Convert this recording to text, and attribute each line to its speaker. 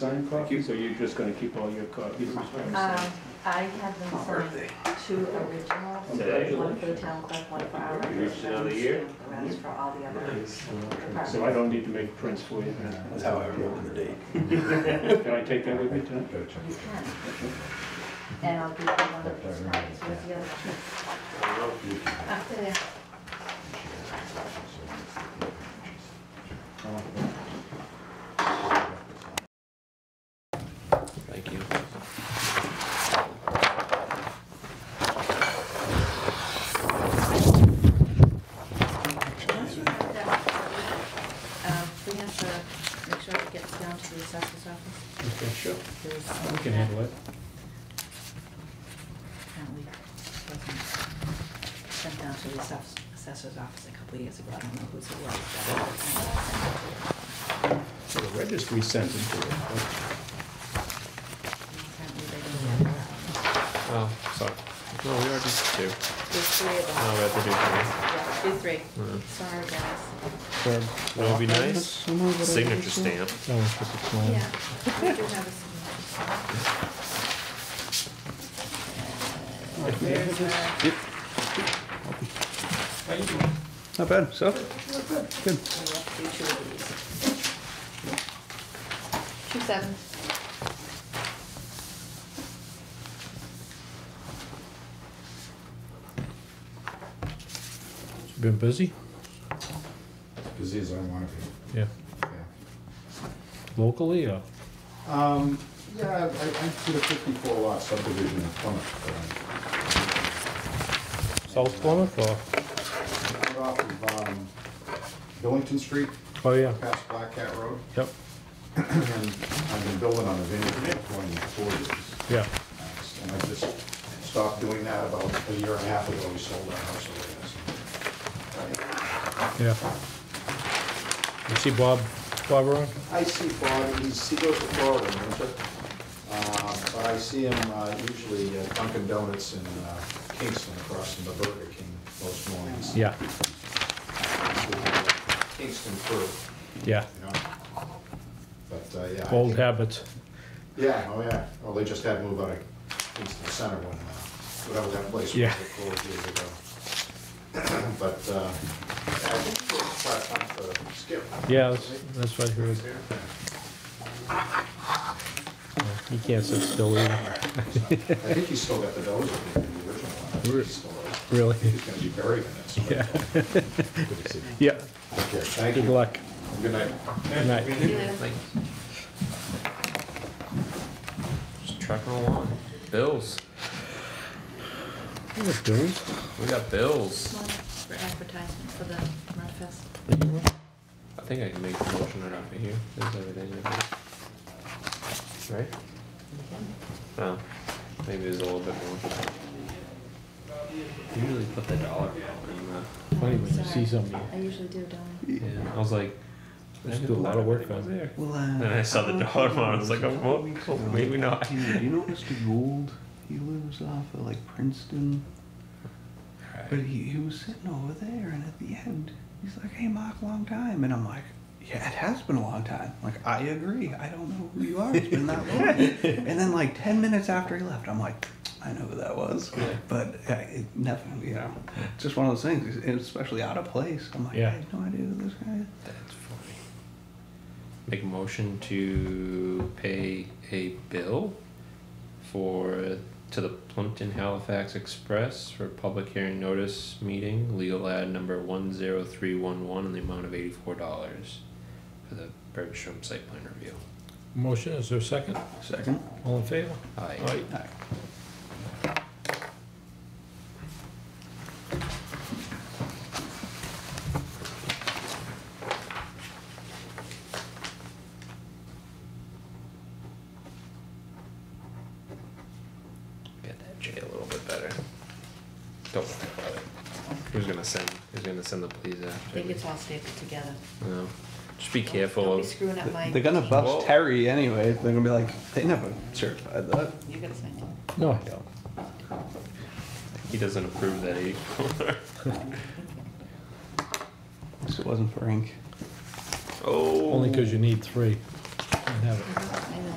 Speaker 1: Sign copies, or you're just gonna keep all your copies?
Speaker 2: Um, I have them signed, two originals,
Speaker 1: Today?
Speaker 2: one for the town clerk, one for our.
Speaker 3: You reached another year?
Speaker 2: and The rest for all the other departments.
Speaker 1: So I don't need to make prints for you.
Speaker 4: That's how I remember the date.
Speaker 1: Can I take that with me, Tom?
Speaker 2: You can. And I'll give you one of these copies with the other two. Up there.
Speaker 4: Thank you.
Speaker 2: Once you have that, uh, we have to make sure it gets down to the assessor's office.
Speaker 1: Okay, sure.
Speaker 2: There's-
Speaker 1: We can handle it.
Speaker 2: Apparently wasn't sent down to the assess- assessor's office a couple of years ago. I don't know who's it was.
Speaker 1: So the registry sent it to you.
Speaker 2: Apparently they didn't get it.
Speaker 5: Oh, sorry. No, we already did two.
Speaker 2: There's three of
Speaker 1: Oh,
Speaker 5: No, we
Speaker 2: them.
Speaker 5: have to do three.
Speaker 2: Yeah, two, three.
Speaker 1: Mm-hmm.
Speaker 5: Mm.
Speaker 2: Sorry, guys.
Speaker 5: That would be nice. Signature stamp.
Speaker 2: Yeah, we do have a signature. There's a-
Speaker 4: Not bad, so?
Speaker 2: We have to do two of these. Two sevens.
Speaker 5: Been busy?
Speaker 6: Busy as I want to be.
Speaker 5: Yeah.
Speaker 6: yeah.
Speaker 5: Locally or?
Speaker 6: Um, yeah, I, I I did a fifty-four lot subdivision in Plymouth, but I'm
Speaker 5: South Plymouth or?
Speaker 6: right off of, um, Billington Street,
Speaker 5: Oh, yeah.
Speaker 6: past Black Cat Road.
Speaker 5: Yep,
Speaker 6: And I've been building on a vineyard for twenty-four years.
Speaker 5: yeah.
Speaker 6: And I just stopped doing that about a year and a half ago, we sold our house away.
Speaker 5: Yeah. You see Bob, Bob around?
Speaker 6: I see Bob, he's, he goes to Florida, in winter. Uh, but I see him uh, usually at Dunkin' Donuts in uh, Kingston, across from the Burger King most mornings.
Speaker 5: Yeah,
Speaker 6: Kingston crew,
Speaker 5: yeah.
Speaker 6: you know? But, uh, yeah. I
Speaker 5: Old
Speaker 6: think-
Speaker 5: habits.
Speaker 6: Yeah, oh, yeah, well, they just had to move out of Kingston Center when, uh, whatever that place was,
Speaker 5: Yeah.
Speaker 6: like four years ago. But, uh, I think it's part-time for Skip.
Speaker 5: Yeah, that's, that's what I heard. He can't sit still either.
Speaker 6: I think he's still got the dozer, the original one. I think he's still alive.
Speaker 5: Really?
Speaker 6: He's gonna be buried in it. so-
Speaker 5: Yeah.
Speaker 6: Good to see you.
Speaker 5: Yeah,
Speaker 6: Okay, thank
Speaker 5: good
Speaker 6: you.
Speaker 5: luck.
Speaker 6: Good night.
Speaker 5: Good night.
Speaker 3: Just trucking along. Bills. We got bills.
Speaker 2: One for advertisement for the Mud Fest.
Speaker 3: I think I can make the motion right off of here. There's everything. in here. Right? Oh, maybe there's a little bit more. You Usually put the dollar amount in
Speaker 5: Funny when you see
Speaker 2: Sorry.
Speaker 5: somebody.
Speaker 2: I usually do, don't
Speaker 3: the, yeah, I was like.
Speaker 5: Just do a lot of work on
Speaker 3: there.
Speaker 4: uh,
Speaker 3: And then I saw the dollar amount, I was like, oh, well, maybe not.
Speaker 4: Do you know Mr. Gould? He lives off of like Princeton. But he, he was sitting over there, and at the end, he's like, "Hey, Mark, long time," and I'm like, "Yeah, it has been a long time." Like, I agree. I don't know who you are. It's been that long. and then, like ten minutes after he left, I'm like, "I know who that was," but uh, it never, you know, it's just one of those things, it's especially out of place. I'm like,
Speaker 5: Yeah.
Speaker 4: "I had no idea who this guy." is."
Speaker 3: That's funny. Make a motion to pay a bill for, to the Plumpton Halifax Express for public hearing notice meeting, legal ad number one zero three one one, in the amount of eighty-four dollars for the Bergstrom site plan review.
Speaker 5: Motion, is there a second?
Speaker 4: Second.
Speaker 5: All in favor?
Speaker 3: Aye.
Speaker 4: Aye.
Speaker 3: Get that J a little bit better. Don't worry about it. Who's gonna send, who's gonna send the pleas
Speaker 2: I
Speaker 3: after?
Speaker 2: think
Speaker 3: me?
Speaker 2: it's all stapled together.
Speaker 3: No, just be
Speaker 2: Don't-
Speaker 3: careful
Speaker 2: Don't be
Speaker 3: of,
Speaker 2: screwing up my.
Speaker 4: They're gonna bust
Speaker 3: Well-
Speaker 4: Terry anyway. They're gonna be like, "They never certified that."
Speaker 2: You gotta sign it.
Speaker 5: No.
Speaker 3: he doesn't approve that eighty-four.
Speaker 4: So it wasn't for ink.
Speaker 3: Oh.
Speaker 5: Only because you need three. have it.
Speaker 2: I know.